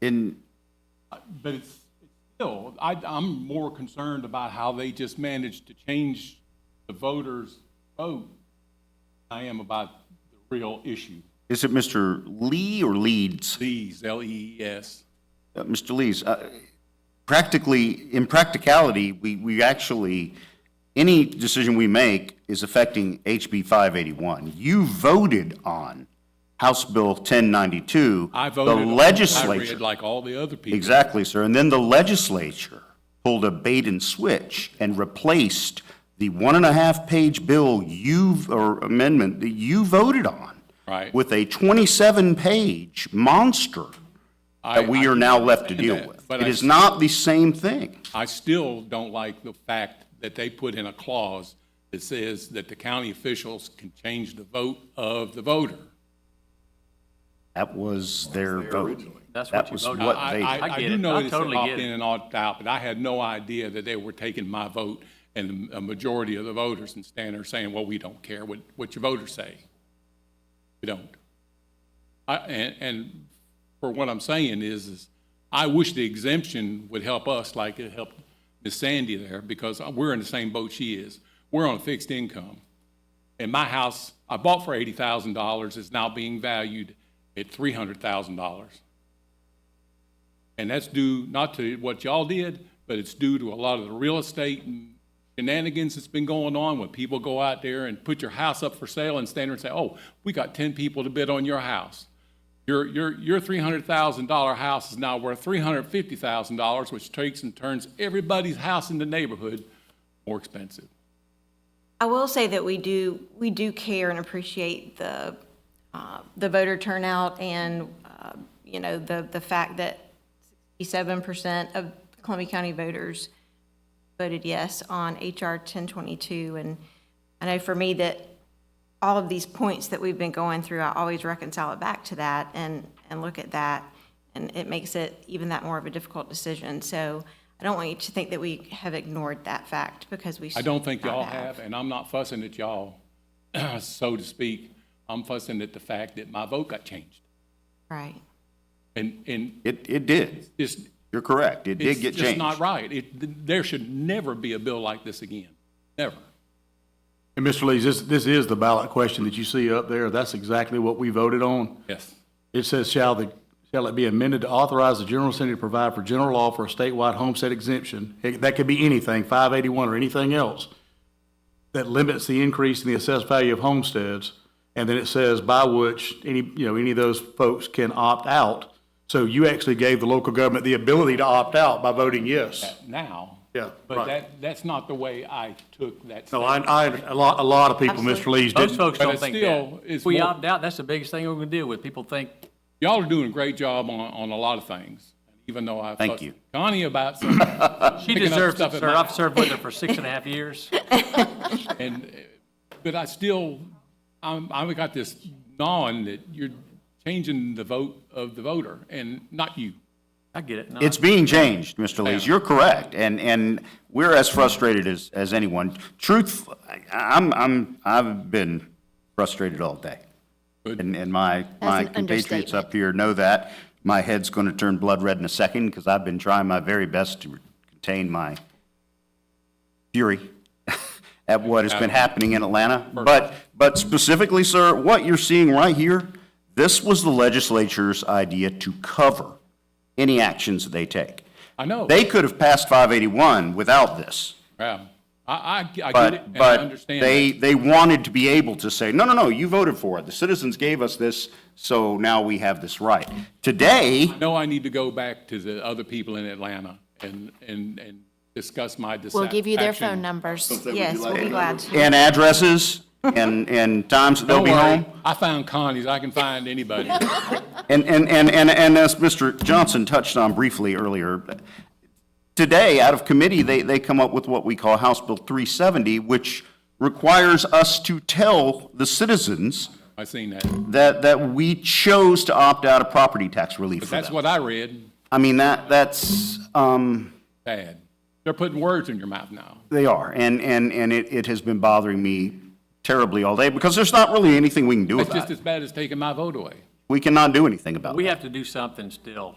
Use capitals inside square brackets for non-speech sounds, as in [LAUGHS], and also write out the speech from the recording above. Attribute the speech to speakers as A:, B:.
A: in,
B: Uh, But it's, it's still, I, I'm more concerned about how they just managed to change the voters' vote than I am about the real issue.
A: is it Mr. Lee or Leeds?
B: These, E L-E-E-S.
A: Uh, Mr. Lees, uh, practically, in practicality, we, we actually, any decision we make is affecting HB 581. You voted on House Bill 1092.
B: I voted.
A: The
B: on it. I
A: legislature.
B: read like all the other people.
A: Exactly, sir. And then the legislature pulled a bait and switch and replaced the one and a half page bill you, or amendment that you voted on.
B: Right.
A: With a 27 page monster
B: I-
A: that we are now left to
B: understand
A: deal
B: that,
A: with.
B: but
A: It
B: I-
A: is not the same thing.
B: I still don't like the fact that they put in a clause that says that the county officials can change the vote of the voter.
A: That was their vote.
C: That's
A: That
C: what you
A: was
C: voted
A: what
C: on.
B: I,
A: they-
B: I, I
C: I get
B: do
C: it.
B: know
C: I
B: it said
C: totally get
B: opt-in
C: it.
B: and opt-out, but I had no idea that they were taking my vote and a majority of the voters and standing there saying, well, we don't care what, what your voters say. We don't. I, and, and for what I'm saying is, is I wish the exemption would help us like it helped Miss Sandy there because we're in the same boat she is. We're on a fixed income. And my house, I bought for eighty thousand dollars, is now being valued at three hundred thousand dollars. And that's due not to what y'all did, but it's due to a lot of the real estate and shenanigans that's been going on when people go out there and put your house up for sale and stand there and say, oh, we got ten people to bid on your house. Your, your, your three hundred thousand dollar house is now worth three hundred fifty thousand dollars, which takes and turns everybody's house in the neighborhood more expensive.
D: I will say that we do, we do care and appreciate the, uh, the voter turnout and, uh, you know, the, the fact that 67% of Columbia County voters voted yes on HR 1022. And I know for me that all of these points that we've been going through, I always reconcile it back to that and, and look at that. And it makes it even that more of a difficult decision. So I don't want you to think that we have ignored that fact because we.
B: I don't think
D: should not
B: y'all have, and I'm not fussing at y'all, [CLEARS THROAT] so to speak. I'm fussing at the fact that my vote got changed.
D: Right.
B: And, and
A: It, it did.
B: it's,
A: You're correct. It did
B: it's
A: get
B: just not
A: changed.
B: right. It, there should never be a bill like this again, never.
E: And Mr. Lees, this, this is the ballot question that you see up there. That's exactly what we voted on.
B: Yes.
E: It says, shall the, shall it be amended to authorize the general assembly to provide for general law for a statewide homestead exemption? It- That could be anything, five eighty-one or anything else, that limits the increase in the assessed value of homesteads. And then it says by which any, you know, any of those folks can opt out. So you actually gave the local government the ability to opt out by voting yes.
B: Now.
E: Yeah,
B: But
E: right.
B: that, that's not the way I took that.
E: No,
B: statement.
E: I, I, a lot, a lot of people, Mr. Lees,
C: Most
E: didn't.
C: folks
B: But
C: don't
B: it's
C: think
B: still-
C: that.
B: it's
C: If we
B: more-
C: opt out, that's the biggest thing we're gonna deal with. People think,
B: Y'all are doing a great job on, on a lot of things, even though I.
A: Thank
B: fussed
A: you.
B: Connie
A: [LAUGHS]
B: about some,
C: she
B: Uh, Picking up
C: deserves
B: stuff
C: it,
B: at
C: sir.
B: my-
C: I've served with her for six and
B: [LAUGHS]
C: a half years.
B: and, uh, but I still, I'm, I've got this gnawing that you're changing the vote of the voter and not you.
C: I get it. No,
A: It's being changed, Mr. Lees. You're correct. And, and we're as frustrated as, as anyone. Truth, I- I'm, I'm, I've been frustrated all day.
B: Good.
A: And, and my, my
F: an
A: compatriots
F: understatement.
A: up here know that. My head's going to turn blood red in a second because I've been trying my very best to contain my fury [LAUGHS] at what has been happening in Atlanta. But, but specifically, sir, what you're seeing right here, this was the legislature's idea to cover any actions that they take.
B: I know.
A: They could have passed 581 without this,
B: Yeah, Um, I, I, I get it,
A: but,
B: and I
A: but
B: understand.
A: they,
B: that.
A: they wanted to be able to say, no, no, no, you voted for it. The citizens gave us this, so now we have this right. Today,
B: I know I need to go back to the other people in Atlanta and, and, and discuss my dissatisfaction.
F: We'll give you their phone numbers.
D: Yes, we'll be glad to.
A: and addresses and, and times that they'll
B: Don't
A: be
B: worry,
A: home.
B: I found Connie's, I can find
F: [LAUGHS]
B: anybody.
A: And, and, and, and, and as Mr. Johnson touched on briefly earlier, today, out of committee, they, they come up with what we call House Bill 370, which requires us to tell the citizens
B: I seen that.
A: that, that we chose to opt out of property tax relief for
B: That's
A: them.
B: what I read,
A: I mean, that, that's, um,
B: bad. They're putting words in your mouth now.
A: they are, and, and, and it, it has been bothering me terribly all day, because there's not really anything we can do
B: It's just
A: about it.
B: as bad as taking my vote away.
A: We cannot do anything about it.
C: We have to do something still.